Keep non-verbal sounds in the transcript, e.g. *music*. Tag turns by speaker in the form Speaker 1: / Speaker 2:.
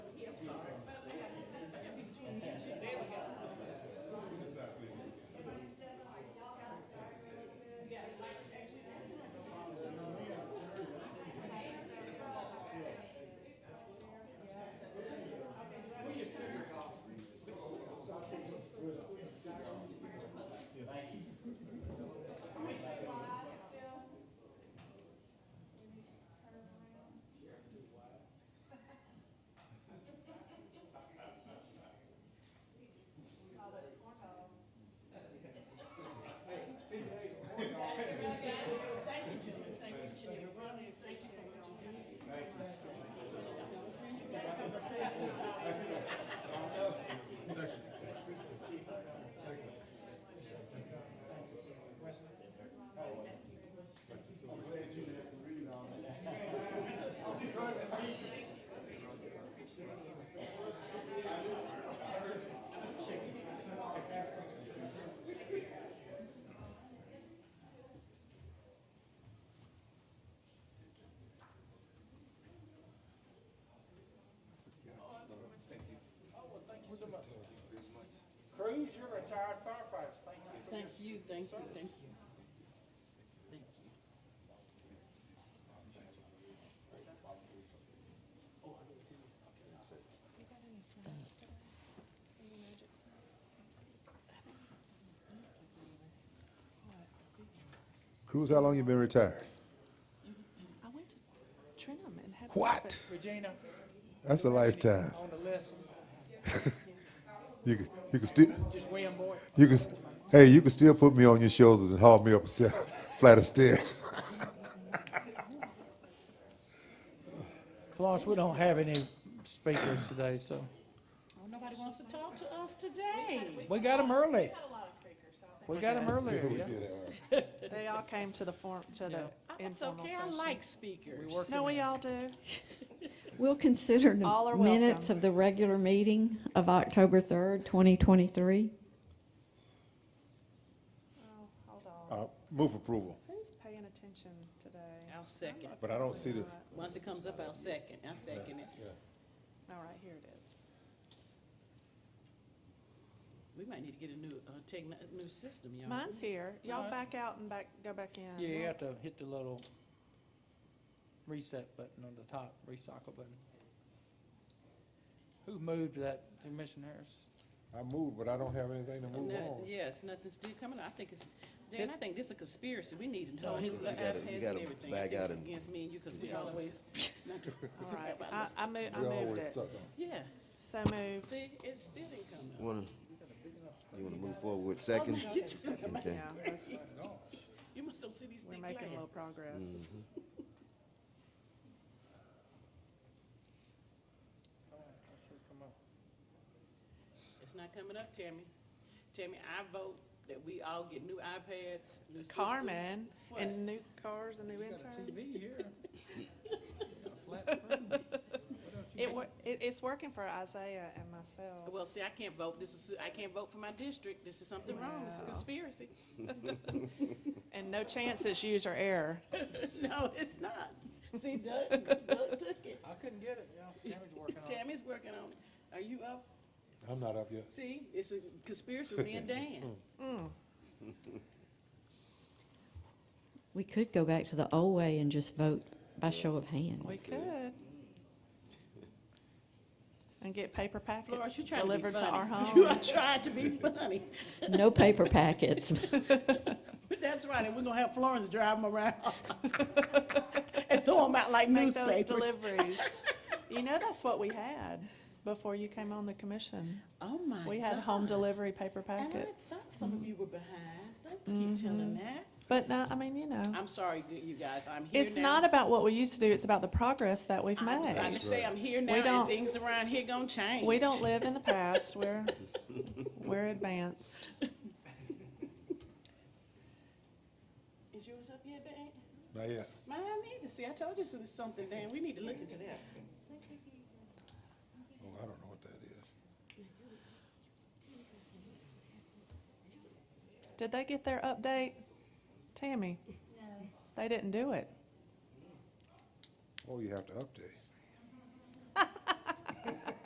Speaker 1: retired firefighters, thank you for your
Speaker 2: Thank you, thank you,
Speaker 1: service.
Speaker 2: thank you. Thank you.
Speaker 3: You got any signs today? Any magic signs?
Speaker 4: Cruz, how long you been retired?
Speaker 3: I went to Trinum and had.
Speaker 4: What?
Speaker 3: breakfast.
Speaker 1: Regina,
Speaker 4: That's a lifetime.
Speaker 1: on the list,
Speaker 4: You can, you can still,
Speaker 1: just William Boyd.
Speaker 4: you can, st- hey, you can still put me on your shoulders and haul me up a stair, *laughs* flight of stairs.
Speaker 1: Florence, we don't have any speakers today, so,
Speaker 2: Oh, nobody wants to talk to us today.
Speaker 1: we got them early,
Speaker 5: Had a lot of speakers, so I think
Speaker 1: we got them earlier, yeah.
Speaker 3: They all came to the form, to the
Speaker 2: Oh, It's
Speaker 3: informal
Speaker 2: okay, I
Speaker 3: session.
Speaker 2: like speakers.
Speaker 3: No, we all do.
Speaker 6: We'll consider
Speaker 3: All
Speaker 6: the
Speaker 3: are
Speaker 6: minutes
Speaker 3: welcome.
Speaker 6: of the regular meeting of October 3rd, 2023.
Speaker 3: Oh, hold on.
Speaker 4: Uh, Move approval,
Speaker 3: Who's paying attention today?
Speaker 2: I'll second.
Speaker 4: but I don't see the,
Speaker 2: Once it comes up, I'll second, I'll second it.
Speaker 3: All right, here it is.
Speaker 2: We might need to get a new, uh, techni new system, y'all.
Speaker 3: Mine's here. Y'all
Speaker 1: Nice.
Speaker 3: back out and back, go back in.
Speaker 1: Yeah, you have to hit the little reset button on the top, recycle button. Who moved that, Commissioner Harris?
Speaker 4: I moved, but I don't have anything to
Speaker 2: Oh, no, Yes, nothing's still coming, I think it's, Dan, I think this is a conspiracy, we need to know.
Speaker 7: you gotta- you gotta back out and-
Speaker 2: Against me and you, because we
Speaker 7: *laughs*
Speaker 2: always. not to-
Speaker 3: All right,
Speaker 2: about
Speaker 3: I,
Speaker 2: this.
Speaker 3: I moved, I moved it.
Speaker 2: Yeah,
Speaker 3: So moved.
Speaker 2: see, it still didn't come up.
Speaker 7: Wanna, you wanna move forward with second? Okay.
Speaker 3: Yeah, let's-
Speaker 2: You must don't see these
Speaker 3: we're
Speaker 2: thick
Speaker 3: making a little
Speaker 2: glasses.
Speaker 3: progress.
Speaker 2: It's not coming up, Tammy. Tammy, I vote that we all get new iPads, new system.
Speaker 3: Carmen,
Speaker 2: What?
Speaker 3: and new cars and new interns.
Speaker 1: TV *laughs* here. Got a flat screen.
Speaker 3: It, wor- it, it's working for Isaiah and myself.
Speaker 2: Well, see, I can't vote, this is, I can't vote for my district, this is something wrong, this is
Speaker 3: Wow.
Speaker 2: conspiracy. *laughs*
Speaker 3: And no chance it's user error.
Speaker 2: No, it's not.
Speaker 3: *laughs*
Speaker 2: See, Doug, Doug took it.
Speaker 1: I couldn't get it, yeah, Tammy's working on it.
Speaker 2: Tammy's working on it. Are you up?
Speaker 4: I'm not up yet.
Speaker 2: See, it's a conspiracy with me and Dan.
Speaker 6: We could go back to the old way and just vote by show of hands.
Speaker 3: We could. And get paper
Speaker 2: Florence,
Speaker 3: packets
Speaker 2: you're trying to be funny.
Speaker 3: delivered to our
Speaker 2: *laughs* You
Speaker 3: home.
Speaker 2: are trying to be funny.
Speaker 6: No paper packets. *laughs*
Speaker 2: That's right, and we're gonna have Florence drive them around
Speaker 3: *laughs*
Speaker 2: and throw them out like
Speaker 3: Make those
Speaker 2: newspapers.
Speaker 3: deliveries. You know, that's what we had before you came on the commission.
Speaker 2: *laughs* Oh, my God.
Speaker 3: We had home delivery paper
Speaker 2: And I
Speaker 3: packets.
Speaker 2: thought some of you were behind. Don't
Speaker 3: Mm-hmm.
Speaker 2: keep telling that.
Speaker 3: But no, I mean, you know,
Speaker 2: I'm sorry, you- you guys, I'm here now.
Speaker 3: it's not about what we used to do, it's about the progress that we've
Speaker 2: I was trying to
Speaker 3: made.
Speaker 2: say, I'm here now,
Speaker 3: don't-
Speaker 2: and things around here gonna change.
Speaker 3: We don't live in the past, we're, we're advanced.
Speaker 2: Is yours up yet, Dan?
Speaker 4: Not yet.
Speaker 2: Mine need to see, I told you this is something, Dan, we need to look into that.
Speaker 4: Oh, I don't know what that is.
Speaker 3: Did they get their update? Tammy? No. They didn't do it.
Speaker 4: Oh, you have to update.